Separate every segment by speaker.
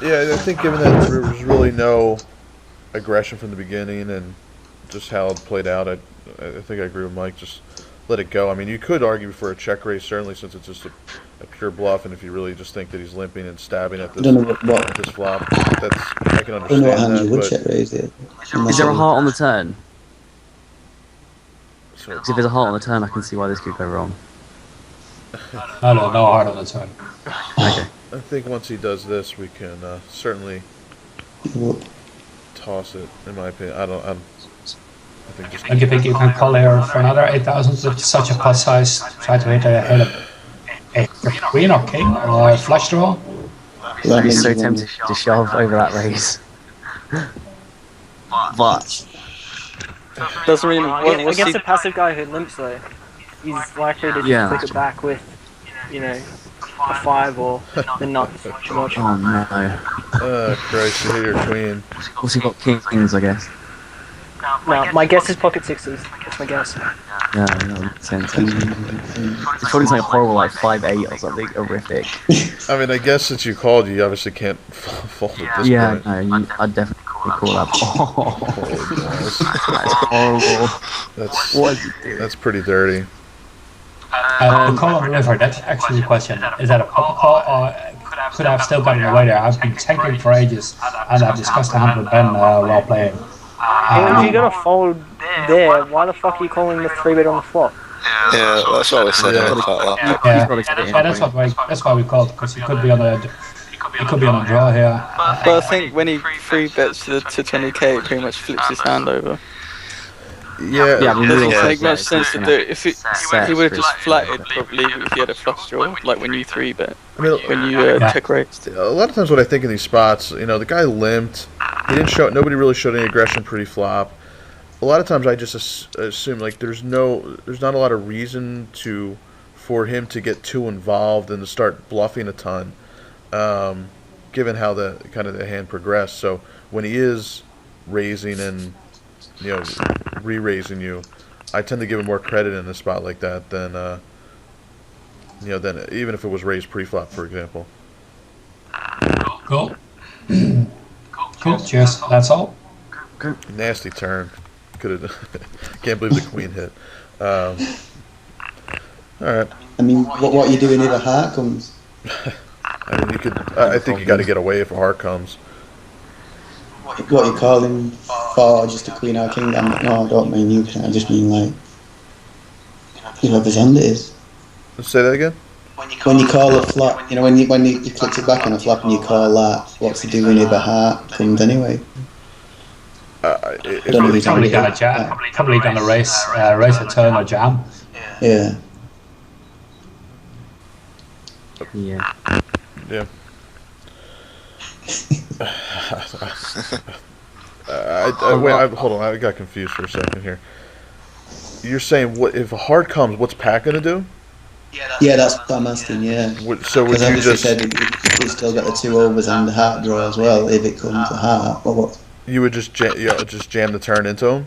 Speaker 1: Yeah, I think given that there was really no aggression from the beginning and just how it played out, I, I think I agree with Mike. Just let it go. I mean, you could argue for a check raise, certainly, since it's just a, a pure bluff, and if you really just think that he's limping and stabbing at
Speaker 2: I
Speaker 1: this,
Speaker 2: don't know what, what,
Speaker 1: at this flop, that's I can
Speaker 2: I don't
Speaker 1: understand
Speaker 2: know what hand you would
Speaker 1: that.
Speaker 2: check raise it.
Speaker 3: Is there a heart on the turn?
Speaker 1: But so,
Speaker 3: 'Cause if there's a heart on the turn, I can see why this could go wrong.
Speaker 4: No, no, no hard on the turn.
Speaker 1: I think once he does this, we can uh, certainly toss it. In my opinion, I don't. I'm, I think just
Speaker 4: Don't you think you can call here for another 8,000 with such a pot size? Try to hit a, hit a, a queen or king or a flush draw?
Speaker 3: I'd be so tempted to shove over that raise.
Speaker 2: But
Speaker 5: Doesn't mean what, what's
Speaker 6: Against a
Speaker 5: the,
Speaker 6: passive guy who limps though, he's likely to
Speaker 3: Yeah.
Speaker 6: just click it back with, you know, a five or the nuts. much.
Speaker 3: Oh no.
Speaker 1: uh, Christ, you hit your queen.
Speaker 3: Also got kings, I guess.
Speaker 6: No, my guess is pocket sixes. That's my guess.
Speaker 3: Yeah, that makes sense. It's probably something horrible like 5'8 or something horrific.
Speaker 1: I mean, I guess since you called, you obviously can't fold at this
Speaker 3: Yeah,
Speaker 1: point.
Speaker 3: no, you, I'd definitely call that. Oh,
Speaker 1: Holy balls.
Speaker 3: that's horrible.
Speaker 1: That's
Speaker 3: What is it doing?
Speaker 1: that's pretty dirty.
Speaker 4: Uh, the call or river, that's actually the question. Is that a pop call or could I have still gotten away there? I've been checking for ages and I've discussed the hand with Ben uh, while playing.
Speaker 6: And if
Speaker 4: Um,
Speaker 6: you're gonna fold there, why the fuck are you calling the three bet on the flop?
Speaker 7: Yeah, that's what we said.
Speaker 1: Yeah.
Speaker 7: I don't quite like.
Speaker 4: Yeah.
Speaker 3: He's probably got it in,
Speaker 4: yeah, that's what we, that's why we called because he could be on a he could be on a draw here.
Speaker 5: but
Speaker 7: But
Speaker 5: I think when he three bets to, the- to 20k, it pretty much flips his hand over.
Speaker 1: Yeah,
Speaker 3: Yeah, we
Speaker 5: It
Speaker 3: will
Speaker 5: doesn't
Speaker 7: Yeah.
Speaker 3: say
Speaker 5: make much
Speaker 3: that,
Speaker 5: sense to
Speaker 3: isn't
Speaker 5: do
Speaker 3: it?
Speaker 5: it. If it,
Speaker 3: Set
Speaker 5: he would have
Speaker 3: is
Speaker 5: just
Speaker 3: pretty
Speaker 5: flatted probably if he had a flush draw, like when you three bet,
Speaker 1: I mean,
Speaker 5: when you uh,
Speaker 4: Yeah.
Speaker 5: check raised.
Speaker 1: a lot of times what I think in these spots, you know, the guy limped. He didn't show. Nobody really showed any aggression pre-flop. A lot of times I just as, assume like there's no, there's not a lot of reason to, for him to get too involved and to start bluffing a ton, um, given how the kind of the hand progressed. So when he is raising and, you know, re-raising you, I tend to give him more credit in a spot like that than, uh, you know, than even if it was raised pre-flop, for example.
Speaker 4: Cool. cool. Cheers. That's all.
Speaker 1: Nasty turn. Could have. can't believe the queen hit. Um, all right.
Speaker 2: I mean, what, what are you doing if a heart comes?
Speaker 1: I mean, you could. I, I think you got to get away if a heart comes.
Speaker 2: What you calling for? Just a queen or a king? I'm, no, I don't mean you. I just mean like you know, the hand it is.
Speaker 1: Say that again.
Speaker 2: When you call a flop, you know, when you when you, you click it back on a flop and you call that, what's he doing if a heart comes anyway?
Speaker 1: Uh, if,
Speaker 2: Don't know
Speaker 1: if,
Speaker 2: if
Speaker 4: Probably
Speaker 2: he's
Speaker 4: gonna
Speaker 2: gonna
Speaker 4: jam.
Speaker 2: hit.
Speaker 4: Probably gonna race uh, race a turn or jam.
Speaker 2: Yeah.
Speaker 3: Yeah.
Speaker 1: uh, I, I, wait, I, hold on. I got confused for a second here. You're saying what if a heart comes? What's Pat gonna do?
Speaker 2: Yeah, that's what I'm asking. Yeah.
Speaker 1: Would, so would
Speaker 2: Because
Speaker 1: you
Speaker 2: obviously
Speaker 1: just
Speaker 2: said it- it- he's still got the two overs and the heart draw as well. If it comes a heart, well, what?
Speaker 1: you would just jam, you know, just jam the turn into him?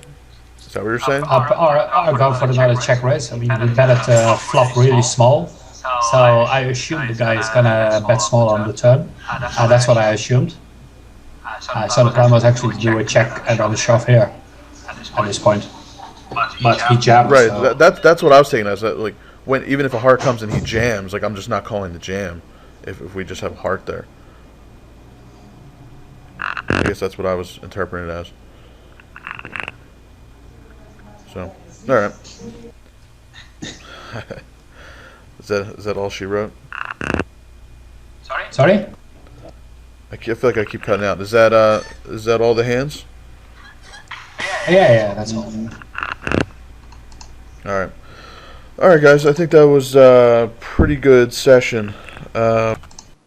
Speaker 1: Is that what you're saying?
Speaker 4: Or, or, or go for another check raise. I mean, we bet it uh, flop really small. So I assume the guy is gonna bet small on the turn. Uh, that's what I assumed. Uh, so the plan was actually to do a check and on the shove here at this point. But he jammed.
Speaker 1: Right.
Speaker 4: so-
Speaker 1: That, that's that's what I was taking as that, like when even if a heart comes and he jams, like I'm just not calling the jam if, if we just have a heart there. I guess that's what I was interpreting it as. So, all right. is that is that all she wrote?
Speaker 4: Sorry?
Speaker 1: I ke- I feel like I keep cutting out. Is that uh is that all the hands?
Speaker 4: Yeah, yeah, that's all.
Speaker 1: All right. All right, guys. I think that was a pretty good session. Uh,